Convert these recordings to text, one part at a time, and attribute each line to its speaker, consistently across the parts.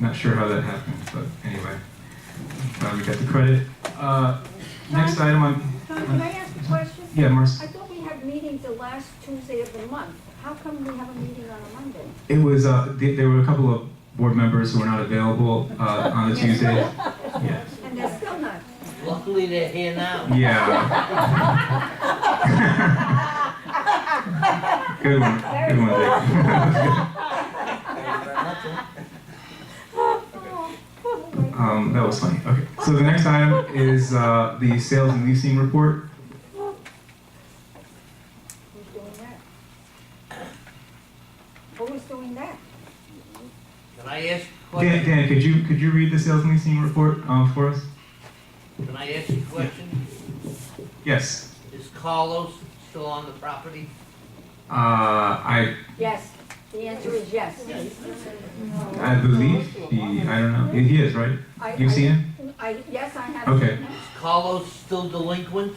Speaker 1: Not sure how that happened, but anyway, glad we got the credit. Uh, Next item on,
Speaker 2: Tom, can I ask a question?
Speaker 1: yeah, Marcy.
Speaker 2: I thought we had meetings the last Tuesday of the month. How come we have a meeting on a Monday?
Speaker 1: It was, uh, th- there were a couple of board members who were not available uh, on the Tuesday. Yeah.
Speaker 2: And they're still not.
Speaker 3: Luckily they're here now.
Speaker 1: Yeah. Good one, good one, Dick. Um, That was funny, okay. So the next item is uh, the sales and leasing report.
Speaker 2: Who's doing that? Who's doing that?
Speaker 3: Can I ask a
Speaker 1: Dan,
Speaker 3: question?
Speaker 1: Dan, could you, could you read the sales and leasing report um, for us?
Speaker 3: Can I ask a question?
Speaker 1: Yes.
Speaker 3: Is Carlos still on the property?
Speaker 1: Uh, I,
Speaker 2: Yes, the answer is yes.
Speaker 1: I believe he, I don't know, he is, right?
Speaker 2: I-
Speaker 1: You've
Speaker 2: I-
Speaker 1: seen him?
Speaker 2: I, yes, I have.
Speaker 1: Okay.
Speaker 2: seen
Speaker 3: Is
Speaker 2: him.
Speaker 3: Carlos still delinquent?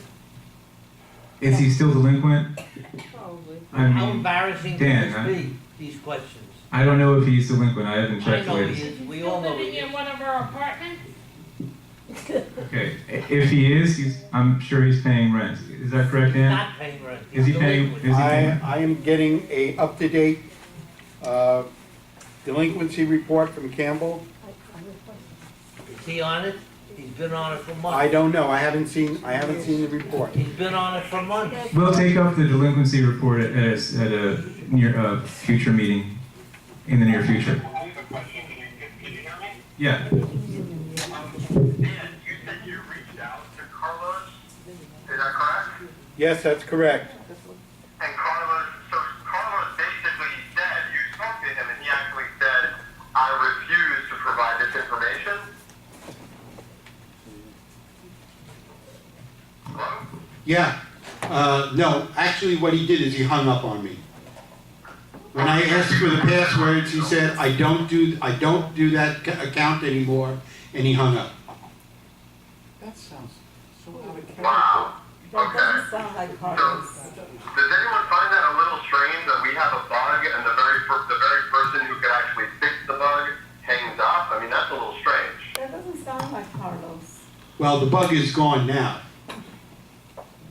Speaker 1: Is he still delinquent? I
Speaker 3: How
Speaker 1: mean,
Speaker 3: embarrassing
Speaker 1: Dan,
Speaker 3: can
Speaker 1: huh?
Speaker 3: this be, these questions?
Speaker 1: I don't know if he's delinquent, I haven't
Speaker 3: I
Speaker 1: checked
Speaker 3: know he
Speaker 1: latest.
Speaker 3: is, we
Speaker 4: Still
Speaker 3: all know
Speaker 4: living
Speaker 3: he
Speaker 4: in
Speaker 3: is.
Speaker 4: one of our apartments?
Speaker 1: Okay, i- if he is, he's, I'm sure he's paying rent, is that correct, Dan?
Speaker 3: Not paying rent.
Speaker 1: Is he paying,
Speaker 3: Delinquent.
Speaker 1: is he
Speaker 5: I,
Speaker 1: paying?
Speaker 5: I am getting a up-to-date uh, delinquency report from Campbell.
Speaker 2: I- I request-
Speaker 3: Is he on it? He's been on it for
Speaker 5: I
Speaker 3: months.
Speaker 5: don't know, I haven't seen, I haven't seen the report.
Speaker 3: He's been on it for months.
Speaker 2: there's-
Speaker 1: We'll take up the delinquency report at, at a- at a near, uh, future meeting, in the near future.
Speaker 6: I have a question. Can you, can you hear me?
Speaker 1: Yeah,
Speaker 6: Um, Dan, you said you reached out to Carlos. Is that correct?
Speaker 5: Yes, that's correct.
Speaker 6: And Carlos, so Carlos basically said, you spoke to him and he actually said, I refuse to provide this information? Hello?
Speaker 7: Yeah, uh, no, actually what he did is he hung up on me. When I asked for the passwords, he said, I don't do, I don't do that ca- account anymore, and he hung up.
Speaker 8: That sounds so out of character.
Speaker 6: Wow.
Speaker 8: That
Speaker 6: Okay.
Speaker 8: doesn't sound like Carlos.
Speaker 6: Does anyone find that a little strange that we have a bug and the very, per- the very person who could actually fix the bug hangs up? I mean, that's a little strange.
Speaker 8: That doesn't sound like Carlos.
Speaker 7: Well, the bug is gone now.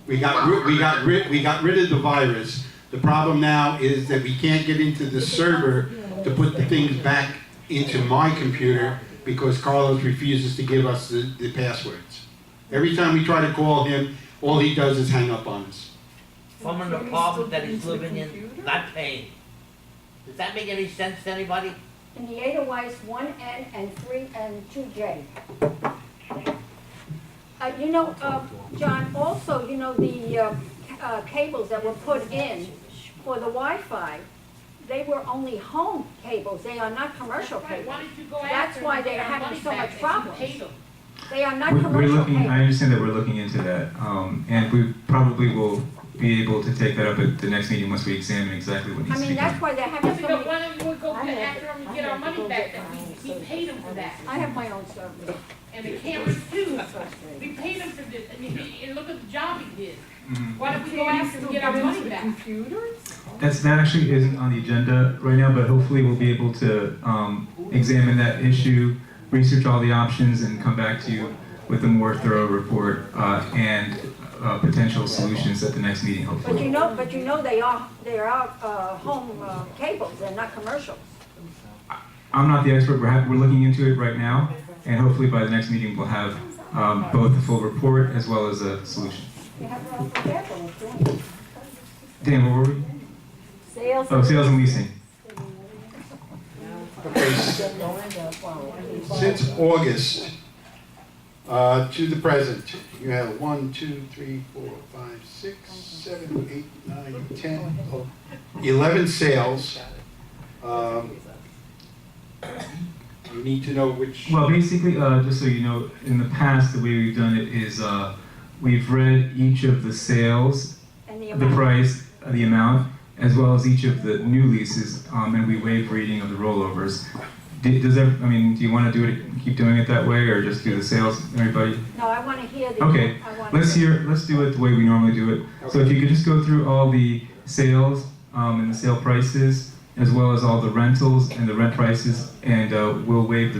Speaker 7: We got, ri- we got rid, we got rid of the virus. The problem now is that we can't get into the server to put the things back into my computer because Carlos refuses to give us the, the passwords. Every time we try to call him, all he does is hang up on us.
Speaker 3: From an apartment that he's living in, not paying. Does that make any sense to anybody?
Speaker 2: In the Edelweiss, one N and three and two J. Uh, you know, uh, John, also, you know, the, uh, c- uh, cables that were put in for the Wi-Fi, they were only home cables, they are not commercial
Speaker 4: Right,
Speaker 2: cables.
Speaker 4: why don't you go
Speaker 2: That's
Speaker 4: after
Speaker 2: why
Speaker 4: them,
Speaker 2: they're
Speaker 4: get our
Speaker 2: having
Speaker 4: money
Speaker 2: so
Speaker 4: back
Speaker 2: much
Speaker 4: that you
Speaker 2: problems.
Speaker 4: paid them?
Speaker 2: They are not
Speaker 1: we're, we're
Speaker 2: commercial
Speaker 1: looking, I
Speaker 2: cables.
Speaker 1: understand that we're looking into that, um, and we probably will be able to take that up at the next meeting once we examine exactly what
Speaker 2: I
Speaker 1: needs to be
Speaker 2: mean,
Speaker 1: done.
Speaker 2: that's why they're having
Speaker 4: Yes,
Speaker 2: so
Speaker 4: but
Speaker 2: many,
Speaker 4: why don't we go
Speaker 8: I
Speaker 4: get
Speaker 8: have
Speaker 4: after
Speaker 8: to-
Speaker 4: them
Speaker 8: I
Speaker 4: and get
Speaker 8: have
Speaker 4: our
Speaker 8: to
Speaker 4: money
Speaker 8: go
Speaker 4: back,
Speaker 8: get
Speaker 4: that we,
Speaker 8: my
Speaker 4: we paid them for that.
Speaker 2: I have my own service.
Speaker 4: And the cameras too, we paid him for this, and, he- and look at the job he did.
Speaker 1: Mhm.
Speaker 4: Why don't we go after him and get our money back?
Speaker 1: That's, that actually isn't on the agenda right now, but hopefully we'll be able to um, examine that issue, research all the options, and come back to you with a more thorough report uh, and uh, potential solutions at the next meeting,
Speaker 2: But you
Speaker 1: hopefully.
Speaker 2: know, but you know, they are, they are, uh, home, uh, cables, they're not commercials.
Speaker 1: I'm not the expert, we're, hap- we're looking into it right now, and hopefully by the next meeting, we'll have um, both the full report as well as a solution.
Speaker 2: You have your own cable, if you want.
Speaker 1: Dan, where were we?
Speaker 2: Sales.
Speaker 1: Oh, sales and leasing.
Speaker 7: Okay, s- since August, uh, to the present, you have one, two, three, four, five, six, seven, eight, nine, ten, oh, eleven sales. Um, You need to know which.
Speaker 1: Well, basically, uh, just so you know, in the past, the way we've done it is uh, we've read each of the sales
Speaker 2: And the
Speaker 1: the
Speaker 2: amount.
Speaker 1: price, uh, the amount, as well as each of the new leases, um, and we waive reading of the rollovers. Do- Does that, I mean, do you want to do it, keep doing it that way, or just do the sales, everybody?
Speaker 2: No, I wanna hear the.
Speaker 1: Okay,
Speaker 2: I wanna
Speaker 1: Let's hear, let's do it the way we normally do it. So if you could just go through all the sales, um, and the sale prices, as well as all the rentals and the rent prices, and, uh, we'll waive the